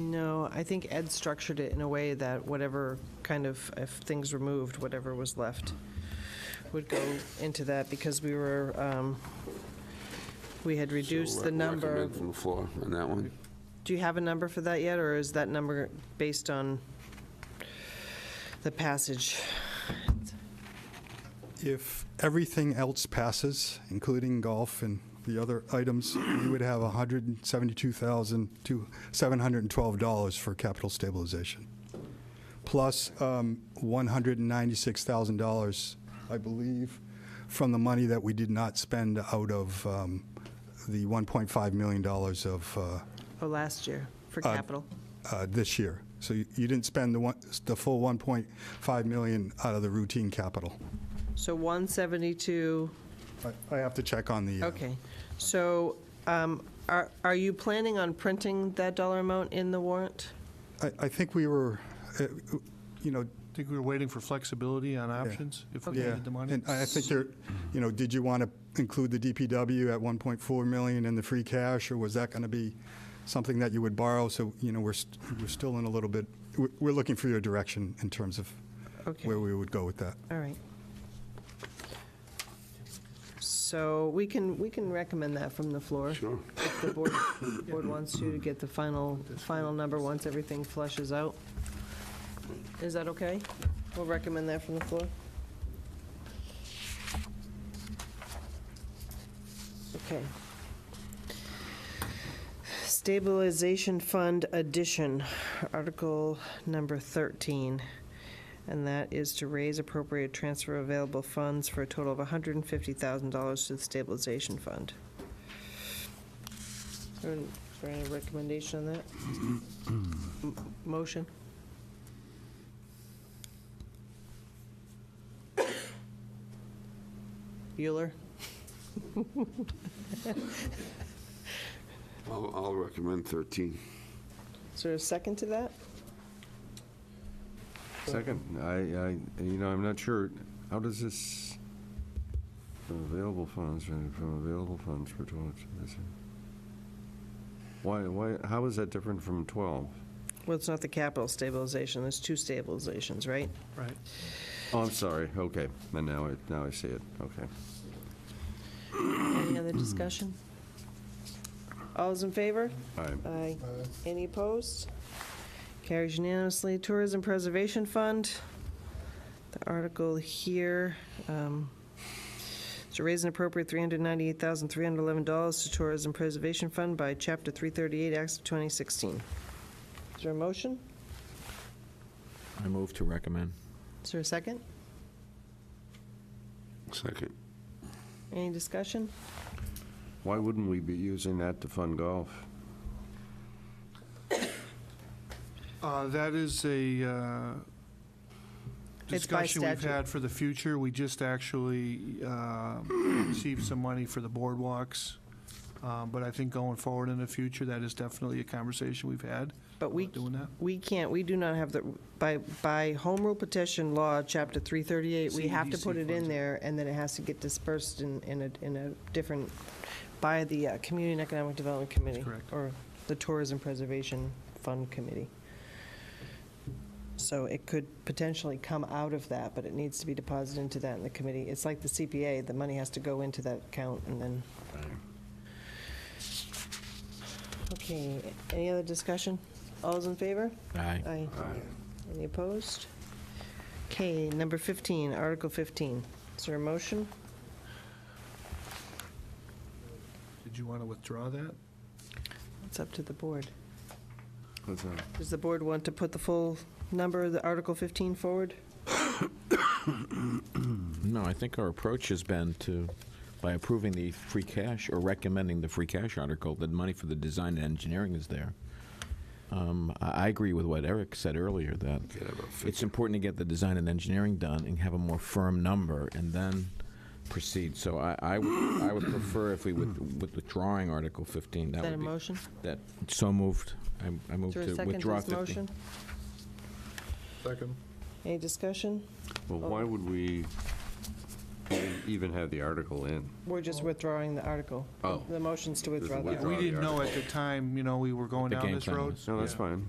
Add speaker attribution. Speaker 1: No, I think Ed structured it in a way that whatever kind of, if things were moved, whatever was left would go into that because we were, um, we had reduced the number.
Speaker 2: Recommend
Speaker 1: of-
Speaker 2: from the floor on that one.
Speaker 1: Do you have a number for that yet, or is that number based on the passage?
Speaker 3: If everything else passes, including golf and the other items, we would have $172,712 for capital stabilization, plus um, $196,000, I believe, from the money that we did not spend out of um, the $1.5 million of uh,
Speaker 1: Oh, last year for
Speaker 3: Uh,
Speaker 1: capital?
Speaker 3: uh, this year. So you you didn't spend the one, the full 1.5 million out of the routine capital.
Speaker 1: So 172,
Speaker 3: I- I have to check on the. uh,
Speaker 1: okay. So um, are are you planning on printing that dollar amount in the warrant?
Speaker 3: I, I think we were, uh, you know,
Speaker 4: Think we were waiting for flexibility on options if we
Speaker 3: yeah.
Speaker 4: needed Oh, the money?
Speaker 3: And I I think there, you know, did you want to include the DPW at 1.4 million in the free cash? Or was that going to be something that you would borrow? So, you know, we're, st- we're still in a little bit, we're, we're looking for your direction in terms of
Speaker 1: Okay.
Speaker 3: where we would go with that.
Speaker 1: All right. So we can, we can recommend that from the floor.
Speaker 2: Sure.
Speaker 1: If the board, board wants to, to get the final, final number once everything flushes out. Is that okay? We'll recommend that from the floor. Okay. Stabilization Fund addition, Article number 13. And that is to raise appropriate transfer available funds for a total of $150,000 to the stabilization fund. Is there an- is there any recommendation on that? M- Motion? Bueller?
Speaker 2: I'll, I'll recommend 13.
Speaker 1: Is there a second to that?
Speaker 5: Second, I, I, you know, I'm not sure, how does this, from available funds, from from available funds for 12, is it- why, why, how is that different from 12?
Speaker 1: Well, it's not the capital stabilization, there's two stabilizations, right?
Speaker 4: Right.
Speaker 5: Oh, I'm sorry, okay, and now I, now I see it, okay.
Speaker 1: Any other discussion? All those in favor?
Speaker 5: All right,
Speaker 1: Aye. Any opposed? Carries unanimously. Tourism Preservation Fund, the article here, um, to raise an appropriate $398,311 to Tourism Preservation Fund by Chapter 338, Acts of 2016. Is there a motion?
Speaker 6: I move to recommend.
Speaker 1: Is there a second?
Speaker 2: Second.
Speaker 1: Any discussion?
Speaker 5: why wouldn't we be using that to fund golf?
Speaker 4: Uh, That is a uh,
Speaker 1: It's by
Speaker 4: discussion we've
Speaker 1: statute.
Speaker 4: had for the future. We just actually uh, received some money for the boardwalks. Uh, But I think going forward in the future, that is definitely a conversation we've had.
Speaker 1: But we,
Speaker 4: about Doing that.
Speaker 1: we can't, we do not have the, by, by home rule petition law, chapter 338, we have to
Speaker 4: CEDC
Speaker 1: put it in
Speaker 4: funds.
Speaker 1: there, and then it has to get dispersed in, in a, in a different, by the uh, Community and Economic Development Committee.
Speaker 4: correct.
Speaker 1: Or the Tourism Preservation Fund Committee. So it could potentially come out of that, but it needs to be deposited into that in the committee. It's like the CPA, the money has to go into that account and then. Okay, any other discussion? All's in favor?
Speaker 6: Aye.
Speaker 1: Aye. Any opposed? Okay, number 15, Article 15. Is there a motion?
Speaker 4: Did you want to withdraw that?
Speaker 1: It's up to the board.
Speaker 5: What's that?
Speaker 1: Does the board want to put the full number of the Article 15 forward?
Speaker 6: No, I think our approach has been to, by approving the free cash, or recommending the free cash article, the money for the design and engineering is there. Um, I I agree with what Eric said earlier, that
Speaker 2: Get about 15.
Speaker 6: it's important to get the design and engineering done and have a more firm number, and then proceed. So I, I would I would prefer if we with- with withdrawing Article 15,
Speaker 1: Is
Speaker 6: that
Speaker 1: that a
Speaker 6: would be...
Speaker 1: motion?
Speaker 6: That, so moved. I- I
Speaker 1: Is
Speaker 6: move
Speaker 1: there a
Speaker 6: to
Speaker 1: second to
Speaker 6: withdraw
Speaker 1: this
Speaker 6: 15.
Speaker 1: motion?
Speaker 4: Second.
Speaker 1: Any discussion?
Speaker 5: Well, why would we even have the article in?
Speaker 1: We're just withdrawing the article.
Speaker 5: Oh.
Speaker 1: The motion's to withdraw the
Speaker 5: There's a
Speaker 1: article.
Speaker 4: We
Speaker 5: Withdraw the
Speaker 4: didn't know at the time, you know, we were going
Speaker 6: the
Speaker 4: down
Speaker 6: game
Speaker 4: this
Speaker 6: plan
Speaker 4: road.
Speaker 6: is.
Speaker 5: No, that's fine.